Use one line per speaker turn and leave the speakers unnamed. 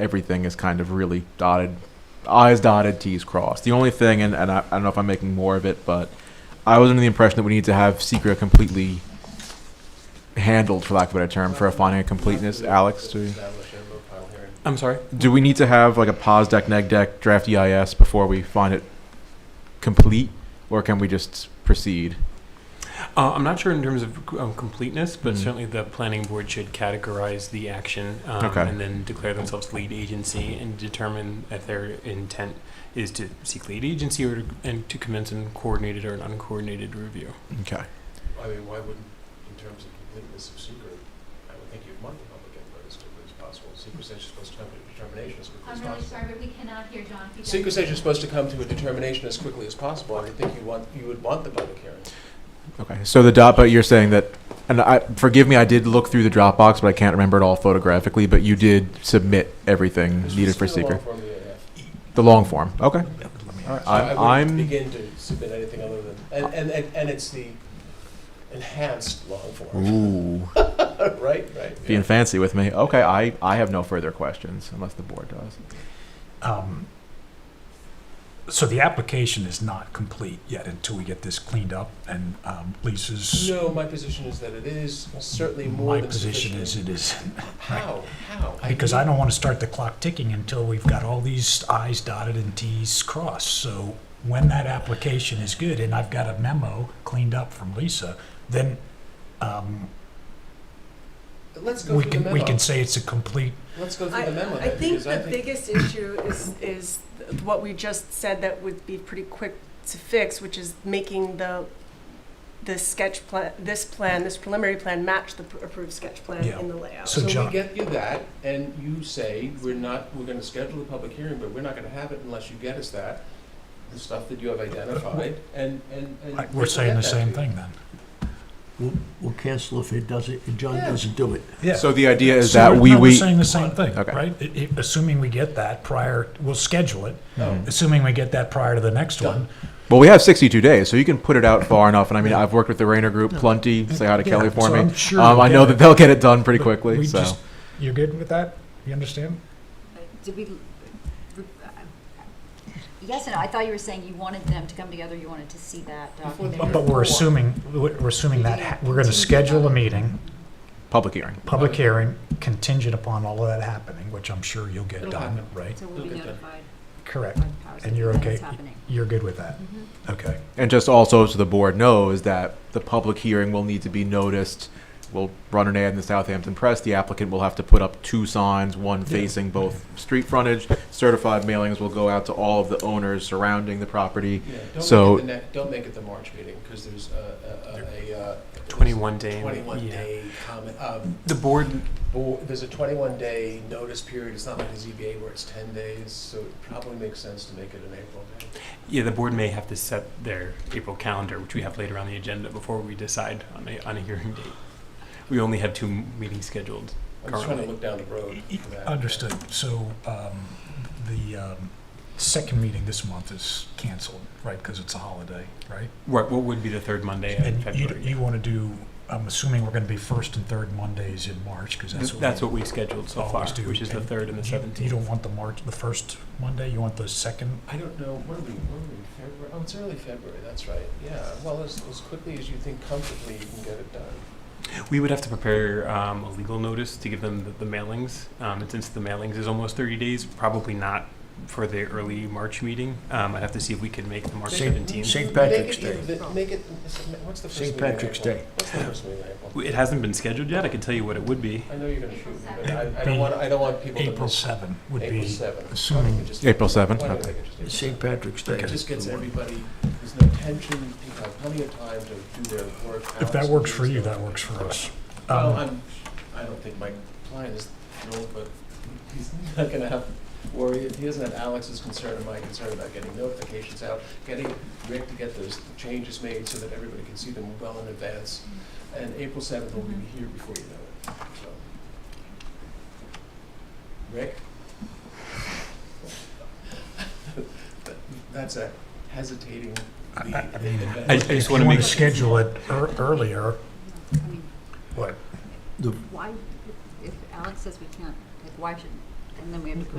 everything is kind of really dotted, I's dotted, T's crossed. The only thing, and, and I, I don't know if I'm making more of it, but I was under the impression that we need to have secret completely handled, for lack of a better term, for a finding of completeness. Alex, do,
I'm sorry?
do we need to have like a pos deck, neg deck, draft EIS before we find it complete, or can we just proceed?
Uh, I'm not sure in terms of um, completeness, but
Mhm.
certainly the planning board should categorize the action um,
Okay.
and then declare themselves lead agency and determine if their intent is to seek lead agency or to, and to commence in coordinated or an uncoordinated review.
Okay.
I mean, why wouldn't, in terms of completeness of secret, I would think you'd want the public input as quickly as possible. Secret stage is supposed to come to a determination as quickly as
I'm really
possible.
sorry, but we cannot hear John. if you don't-
Secret stage is supposed to come to a determination as quickly as possible. I would think you want, you would want the public hearing.
Mm-hmm. Okay. So the dot, but you're saying that, and I forgive me, I did look through the Dropbox, but I can't remember it all photographically. But you did submit everything
This
needed
was
for
still a long
secret,
form EAF.
the long form. Okay.
So I
I,
wouldn't
I'm
begin to submit anything other than, and, and, and- and it's the enhanced long form,
ooh
right, right?
being fancy with me. Okay. I I have no further questions unless the board does.
Um, So the application is not complete yet until we get this cleaned up and um, Lisa's,
No, my position is that it is certainly more
my
than
position is
sufficient.
it is,
How, how?
because I don't want to start the clock ticking until we've got all these i's dotted and t's crossed. So when that application is good and I've got a memo cleaned up from Lisa, then um,
Let's go
we
through the
can, we
memo.
can say it's a complete,
Let's go through
I,
the memo
I
then,
think
because I
the
think.
biggest issue is, is what we just said that would be pretty quick to fix, which is making the, the sketch plan, this plan, this preliminary plan match the pr- approved sketch plan
Yeah.
in the layout.
So
So we
John-
get you that, and you say, we're not, we're gonna schedule a public hearing, but we're not gonna have it unless you get us that, the stuff that you have identified, and, and, and.
we're
we
saying
get
the
that
same
to you.
thing then.
We'll, we'll cancel if it doesn't, if John
Yeah.
doesn't do it.
Yeah.
So the idea is
So
that
we're-
we
no, we're
we.
saying the same thing,
Okay.
right? I- I- Assuming we get that prior, we'll schedule it,
Oh.
assuming we get that prior to the next one.
Well, we have 62 days, so you can put it out far enough. And I mean, I've worked with the Rayner Group plenty. Say hi to
Yeah,
Kelly for
so
me.
I'm sure
um,
we'll
I know
get
that
it.
they'll get it done pretty quickly.
We
so
just- You're good with that? You understand?
Did we, re- uh, yes, and I thought you were saying you wanted them to come together, you wanted to see that document.
But we're assuming, we're assuming that, ha- we're gonna schedule a meeting,
public hearing.
public hearing, contingent upon all of that happening, which I'm sure you'll get
It'll
done,
happen.
right?
So we'll be
Look at that.
notified
Correct.
by the powers that
And
be
you're
that
okay?
it's happening.
You're good with that?
Mhm.
Okay.
And just also so the board knows that the public hearing will need to be noticed. We'll run an ad in the Southampton Press. The applicant will have to put up two signs, one facing both street frontage. Certified mailings will go out to all of the owners surrounding the property.
Yeah, don't
So-
make it the next, don't make it the March meeting, because there's a, a, a, uh.
21 day.
Twenty-one
yeah.
day comment, um,
The board,
bo- there's a twenty-one day notice period, it's not like the ZBA where it's ten days, so it probably makes sense to make it an April day.
yeah, the board may have to set their April calendar, which we have later on the agenda before we decide on a, on a hearing date. We only have two meetings scheduled
I'm just trying to
Currently.
look down the road for that.
Understood. So, um, the, um, second meeting this month is canceled, right? Because it's a holiday, right?
What, what would be the third Monday of
And you,
February?
you want to do, I'm assuming we're going to be first and third Mondays in March, because that's
Th-
what.
That's
we
what we've scheduled so far,
always do.
which is the third and the
You- You
seventeenth.
don't want the March, the first Monday, you want the second?
I don't know, what are we, what are we, February, oh, it's early February, that's right, yeah, well, as, as quickly as you think comfortably you can get it done.
We would have to prepare um, a legal notice to give them the, the mailings, um, and since the mailings is almost thirty days, probably not for the early March meeting. Um, I'd have to see if we could make the March
Make it-
seventeenth.
Saint
make
Patrick's
it in
Day.
the- Make it, what's the first
Saint
meeting in
Patrick's
April?
Day.
What's the first meeting in April?
It hasn't been scheduled yet, I can tell you what it would be.
I know you're gonna shoot me, but I, I
April-
don't want, I don't want people to
April
miss.
7 would
April
be,
seventh.
assuming-
Why don't we just-
April seventh,
why don't we
okay.
make it just April
It's St. Patrick's Day.
It just gets everybody, there's no tension, people have plenty of time to do their work.
if that
hours
works
and
for you,
things.
that works for us.
Well,
Um,
I'm, I don't think Mike Klein is thrilled, but he's not gonna have, worry, if he doesn't have Alex's concern and my concern about getting notifications out, getting Rick to get those changes made so that everybody can see them well in advance. And April seventh will be here before you know it, so. Rick? That's a hesitating
I-
lead.
I- I mean,
I, I just want to
If you want to
make,
schedule it ear- earlier,
I mean,
what,
The-
why, if- if Alex says we can't, like, why should, and then we have to